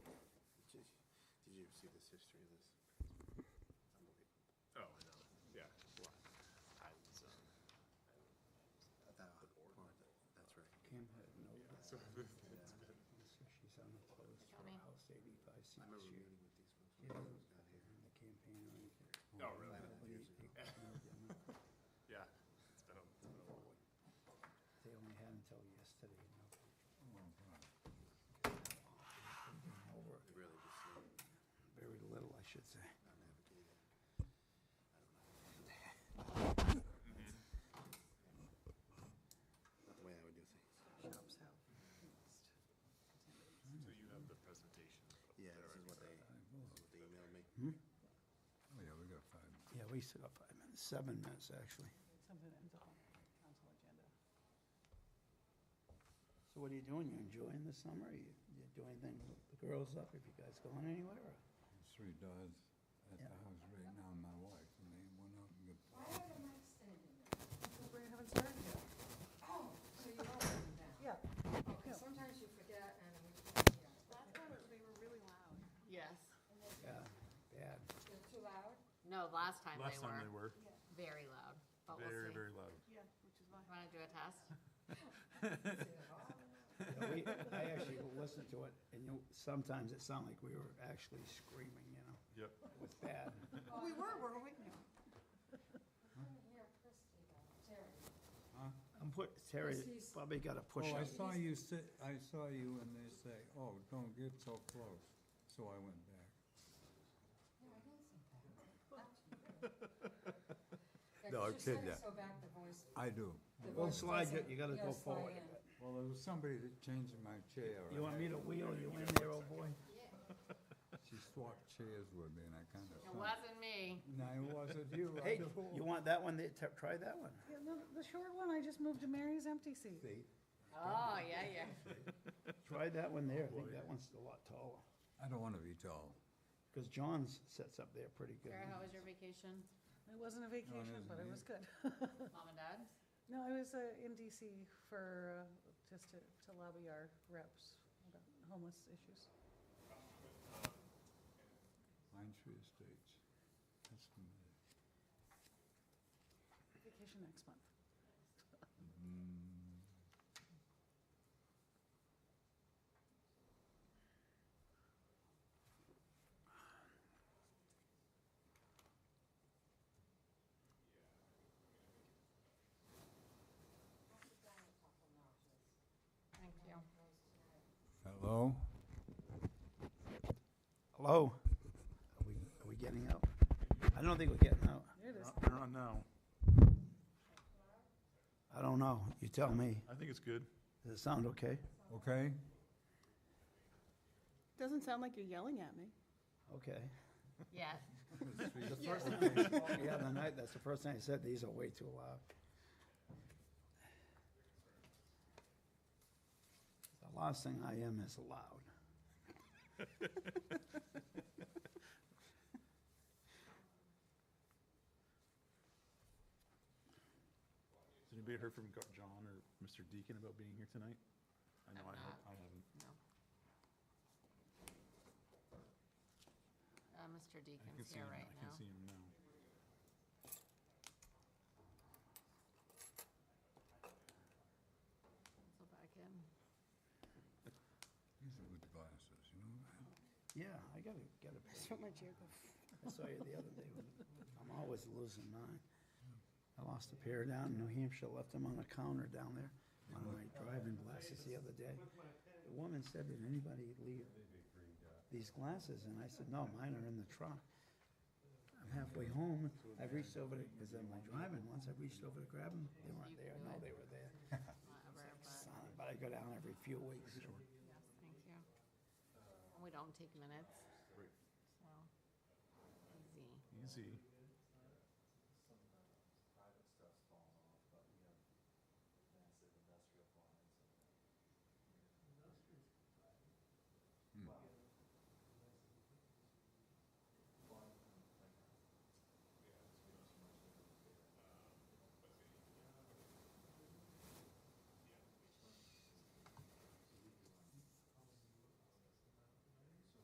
see this history of this. Unbelievable. Oh, I know, yeah. I was, um, That- or that- That's right. Kim had no, yeah, so it's been, so she's on the post for me. House eighty-five C I remember this year. meeting with these folks She when I doesn't was down here. run the campaign or Oh, really? anything. Nobody- Years ago. nobody- yeah, it's been a, it's been a while. Oh, They only had until yesterday, you know. Over They Really just uh, very little, I should say. not navigated. I don't know. Not the way I would do things. Shops out. so you have the presentation. up Yeah, this there, is what right? they, this is what they emailed me. Oh, yeah, we got five. Yeah, we still got five minutes, seven minutes, actually. Something ends up on the council agenda. So what are you doing? You enjoying the summer? You, you doing anything with the girls up? Have you guys gone anywhere? or- There's Three dogs at the Yeah. house right now, and my wife, and they went out and Oh, got. We haven't started yet. So you are writing down? Yeah. Okay, sometimes you forget and we, yeah, Last time it- they were really loud. Yes. Yeah, bad. they're too loud. No, last time Last they time they were were, very loud, but we'll very, see. very loud. Yeah, which is why. Want to do a test? Yeah, we- I actually listened to it, and you, sometimes it sounded like we were actually screaming, you know? Yep, It was bad. We were, Oh, weren't we? No. I couldn't hear Christie though, Terry. I'm put, Terry he's- probably got a push Oh, I up. saw you sit, I saw you, and they say, oh, don't get so close, so I went back. No, I didn't say that. Not to you. No, I'm Yeah, 'cause you kidding said it ya. So back the voice. I do. the Don't voice slide, you, doesn't- you gotta yeah, go slide forward. in. Well, there was somebody that changed my chair. You want me to wheel you in there, old boy? She swapped chairs with me, and I kind of. It wasn't me. No, it wasn't you. I Hey, just- you want that one, there? T- try that one. Yeah, the, the short one, I just moved to Mary's empty seat. See, Oh, yeah, yeah. Try that one there, I think that one's a lot taller. I don't want to be tall. Because John's sits up there pretty good. Sarah, how was your vacation? It wasn't a vacation, isn't but it was it? good. Mom and dad? No, I was uh, in DC for, uh, just to, to lobby our reps about homeless issues. Pine Tree Estates. That's familiar. Vacation next month. Thank you. Hello? Hello? Are we, are we getting out? I don't think we're getting out. There it is. I don't know, I don't know, you tell me. I think it's good. Does it sound okay? Okay? Doesn't sound like you're yelling at me. Okay. Yes. The first time he called me the other night, that's the first thing I said, these are way too loud. The last thing I am is loud. Has anybody heard from Go- John or Mr. Deacon about being here tonight? I know I've I have, not. I haven't. No. Uh, I Mr. can Deacon's see here him, right I can now. see him now. So back in. These are good glasses, you know that? Yeah, I gotta get a That's what my chair goes. I saw you the other day. with- I'm always losing mine. I lost a pair down in New Hampshire, left them on a counter down there on my driving glasses the other day. The woman said, did anybody leave these glasses? And I said, no, mine are in the truck. I'm halfway home. I reached over to, because I'm like driving once, I reached over to grab them. They weren't there. No, they were there. Whatever, but, Son, But I go down every few weeks. thank you. And We don't take minutes. So, easy. Easy.